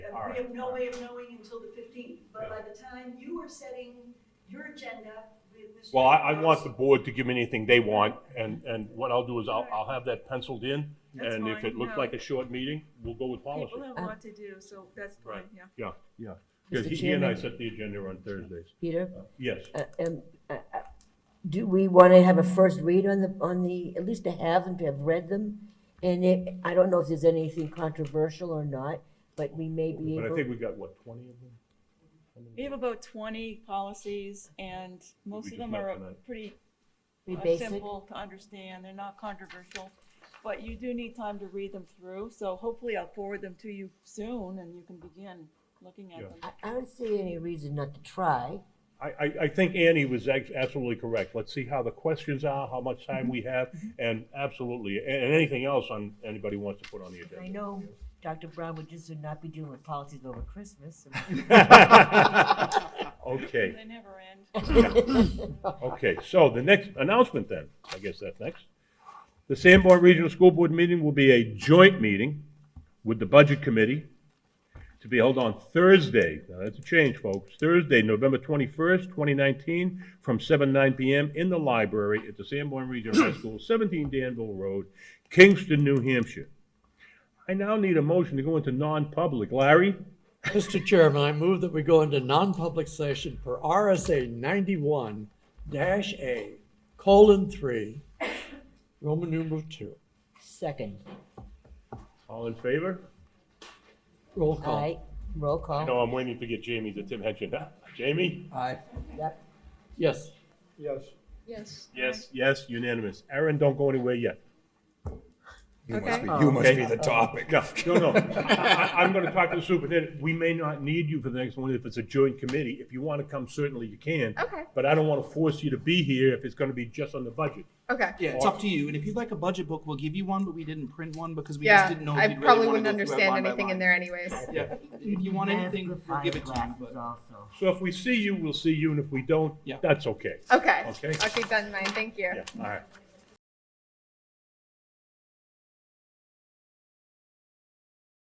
All We right. have no all right. way of knowing until the fifteenth, but Yeah. by the time you are setting your agenda with Mr. Well, I, I want the Kraus- board to give me anything they want, and, and what I'll do is I'll, I'll have that penciled in, That's and if fine, it looks no. like a short meeting, we'll go with policy. People have a lot to do, so that's fine, Right. yeah. Yeah, yeah. Mr. Because he he and I Chairman. set the agenda on Thursdays. Peter, Yes, uh, um, uh, uh, do we want to have a first read on the, on the, at least to have them, to have read them? And it, I don't know if there's anything controversial or not, but we may be but I think able, we got, what, twenty of them? We have about twenty policies and most just of them met are tonight. pretty be uh, basic. simple to understand. They're not controversial. But you do need time to read them through, so hopefully I'll forward them to you soon and you can begin looking at Yeah. them. I, I don't see any reason not to try. I, I, I think Annie was ac- absolutely correct. Let's see how the questions are, how much time we have, Mm-hmm. and absolutely, and, and anything else on, anybody wants to put on the I agenda. know Dr. Brown would just would not be dealing with policies over Christmas. Okay, They never end. okay, so the next announcement then, I guess that's next. The Sanborn Regional School Board meeting will be a joint meeting with the Budget Committee to be held on Thursday, now that's a change, folks, Thursday, November twenty-first, twenty nineteen, from seven, nine PM in the library at the Sanborn Regional High School, seventeen Danville Road, Kingston, New Hampshire. I now need a motion to go into non-public. Larry? Mr. Chairman, I move that we go into non-public session per RSA ninety-one dash A, colon three, Roman numeral two. Second, All in favor? Roll call. aye, roll call. No, I'm waiting to get Jamie to Tim Henson. Jamie? Aye. Yep. Yes. Yes. Yes. Yes. Yes, unanimous. Aaron, don't go anywhere yet. You Okay. must be, you must be Okay. the topic. No, no, no. I, I'm gonna talk to the superintendent. We may not need you for the next one if it's a joint committee. If you wanna come, certainly you can. Okay. But I don't wanna force you to be here if it's gonna be just on the budget. Okay. Yeah, it's up to you. And if you'd like a budget book, we'll give you one, but we didn't print one because we Yeah, just didn't know. I if you'd really probably wanna wouldn't go through it understand line by anything line. in there anyways. Yeah, if you want anything, we'll give it to you. But Also. So if we see you, we'll see you, and if we don't, Yeah. that's okay. Okay. Okay. I'll keep that in mind. Thank you. Yeah, all right.